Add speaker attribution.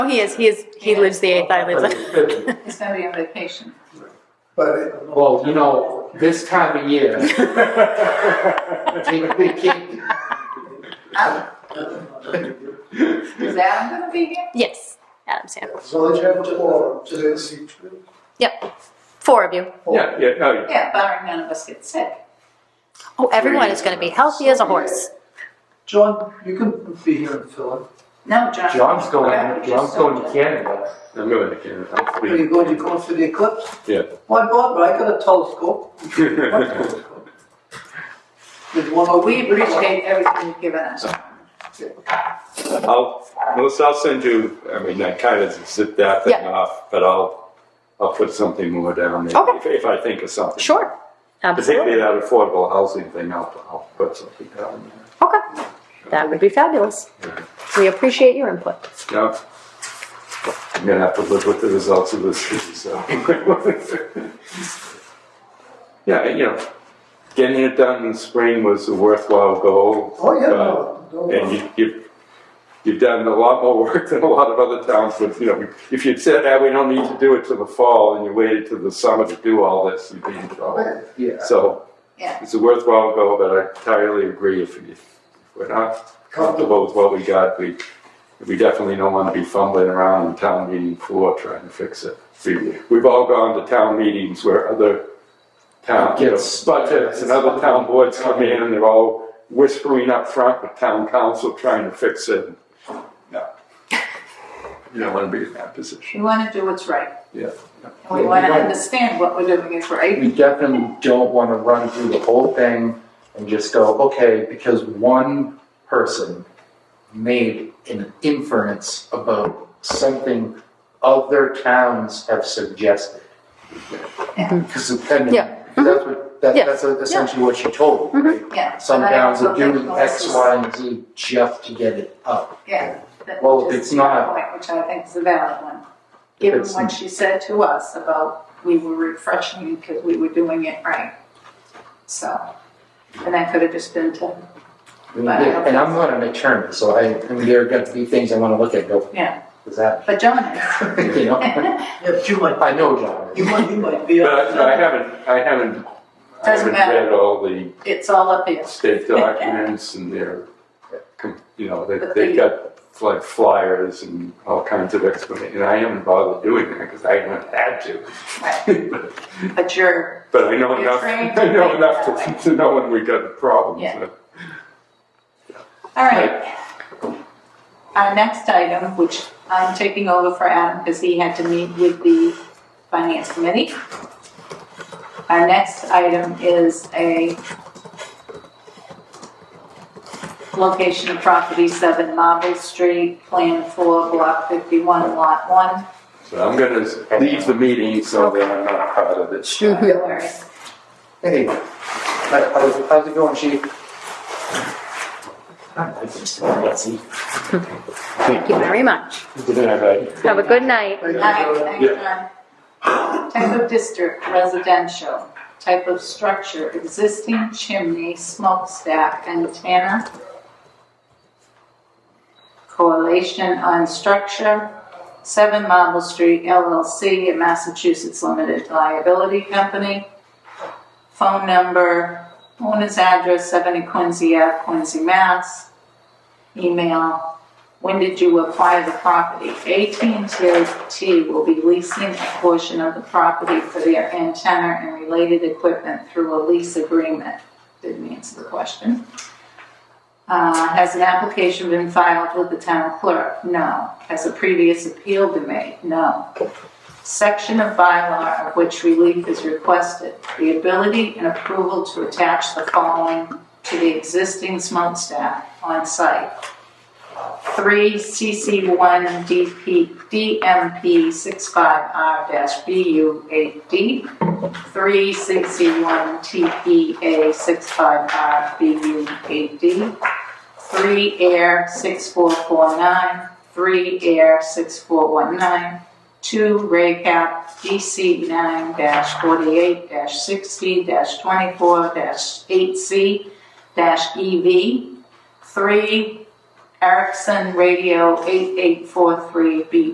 Speaker 1: Oh, he is, he is, he lives the eighth, I live the.
Speaker 2: He's gonna be on vacation.
Speaker 3: But it-
Speaker 4: Well, you know, this time of year. Take the kid.
Speaker 2: Is Adam gonna be here?
Speaker 1: Yes, Adam Sandler.
Speaker 3: as long as you have a forum, so it's
Speaker 1: Yep, four of you.
Speaker 3: four.
Speaker 5: Yeah, yeah, oh, yeah.
Speaker 2: Yeah, barring none of us get sick.
Speaker 1: Oh, everyone is going to be healthy as a horse.
Speaker 3: John, you can be here and fill in.
Speaker 2: No, John.
Speaker 4: John's
Speaker 2: Whatever
Speaker 4: going,
Speaker 2: you
Speaker 4: John's
Speaker 2: just
Speaker 4: going to
Speaker 2: told
Speaker 4: Canada.
Speaker 5: I'm going to Canada. I'm
Speaker 3: Are you
Speaker 5: free.
Speaker 3: going, you going for the eclipse?
Speaker 5: Yeah.
Speaker 3: Why bother? I got a telescope. What telescope? There's one
Speaker 2: us.
Speaker 3: over
Speaker 2: We
Speaker 3: here.
Speaker 2: appreciate everything you've given us.
Speaker 5: I'll, Melissa, I'll send you, I mean, I kind of zipped that thing
Speaker 1: Yeah.
Speaker 5: off, but I'll, I'll put something more down there.
Speaker 1: Okay.
Speaker 5: If, if I think of something.
Speaker 1: Sure.
Speaker 5: Particularly
Speaker 1: Absolutely.
Speaker 5: that affordable housing thing, I'll, I'll put something down there.
Speaker 1: Okay, that would be fabulous. We appreciate your input.
Speaker 5: Yeah. I'm gonna have to live with the results of this, so. Yeah, you know, getting it done in spring was a worthwhile goal. Uh,
Speaker 3: Oh, yeah,
Speaker 5: but-
Speaker 3: no, don't
Speaker 5: And
Speaker 3: worry.
Speaker 5: you, you've, you've done a lot more work than a lot of other towns would, you know, if you'd said, ah, we don't need to do it till the fall, and you waited till the summer to do all this, you'd be in trouble.
Speaker 4: Yeah.
Speaker 5: So,
Speaker 2: Yeah.
Speaker 5: it's a worthwhile goal, but I entirely agree, if, if we're not comfortable with what we got, we, we definitely don't wanna be fumbling around in town meeting floor trying to fix it. We, we've all gone to town meetings where other town, you know,
Speaker 4: Gets-
Speaker 5: budgets and other town boards come in, and they're all whispering up front with town council trying to fix it. No. You don't wanna be in that position,
Speaker 2: We wanna do what's right.
Speaker 5: yeah.
Speaker 2: And we wanna understand what we're doing is right.
Speaker 4: We definitely don't want to run through the whole thing and just go, okay, because one person made an inference about something other towns have suggested. Because then,
Speaker 1: Yeah.
Speaker 4: that's what, that,
Speaker 1: Yeah. Mm-hmm.
Speaker 4: that's essentially what she told me, right?
Speaker 2: Yeah.
Speaker 4: Some
Speaker 2: but I
Speaker 4: towns
Speaker 2: also
Speaker 4: will
Speaker 2: think
Speaker 4: do X,
Speaker 2: Melissa's-
Speaker 4: Y, and Z just to get it up.
Speaker 2: Yeah. that-
Speaker 4: Well, if
Speaker 2: which is
Speaker 4: it's not-
Speaker 2: your Point, which I think is a valid one. Given
Speaker 4: it's-
Speaker 2: what she said to us about we were refreshing because we were doing it right. So, and that could have just been to,
Speaker 4: And and I'm not an attorney, so I, I mean, there are gonna be things I wanna look at, go,
Speaker 2: yeah,
Speaker 4: is that,
Speaker 2: but John is.
Speaker 4: you know?
Speaker 3: Yeah, but you might,
Speaker 4: I know John.
Speaker 3: you might, you might be.
Speaker 5: But I- but I haven't, I haven't, I
Speaker 2: Doesn't
Speaker 5: haven't
Speaker 2: matter.
Speaker 5: read all the
Speaker 2: It's all up here.
Speaker 5: state documents and their, you know, they,
Speaker 2: But
Speaker 5: they've
Speaker 2: they-
Speaker 5: got like flyers and all kinds of explanations. And I haven't bothered doing that because I haven't had
Speaker 2: Right.
Speaker 5: to.
Speaker 2: But you're,
Speaker 5: But I know
Speaker 2: You're
Speaker 5: enough,
Speaker 2: trained to
Speaker 5: I know
Speaker 2: think
Speaker 5: enough
Speaker 2: that way.
Speaker 5: to, to know when we got problems.
Speaker 2: Yeah.
Speaker 5: but-
Speaker 2: all right. Our next item, which I'm taking over for Adam because he had to meet with the finance committee. Our next item is a location of property seven Marble Street, plan four, block fifty-one, lot one.
Speaker 5: So I'm gonna s- leave the meeting so that I'm not part of this.
Speaker 1: Mm-hmm.
Speaker 4: Hey, how- how's, how's it going, chief?
Speaker 1: Thank you very much.
Speaker 5: Good night, bud.
Speaker 1: Have a good night.
Speaker 3: Thank you,
Speaker 2: Alright,
Speaker 3: John.
Speaker 2: thanks, John. uh, Type of district, residential. Type of structure, existing chimney, smokestack, antenna. Correlation on structure, Seven Marble Street LLC, a Massachusetts limited liability company. Phone number, owner's address, 70 Quincy Ave, Quincy, Mass. Email, when did you acquire the property? AT&T will be leasing a portion of the property for their antenna and related equipment through a lease agreement. Didn't answer the question. Uh, Has an application been filed with the town clerk? No. Has a previous appeal been made? No. Section of bylaw of which relief is requested. The ability and approval to attach the following to the existing smokestack on site three CC one DP, DMP six-five R BU eight D, three CC one TPA six-five R BU eight D, three air six-four-four-nine, three air six-four-one-nine, two Raycap DC nine forty-eight sixty twenty-four eight C E EV, three Erickson Radio 8843B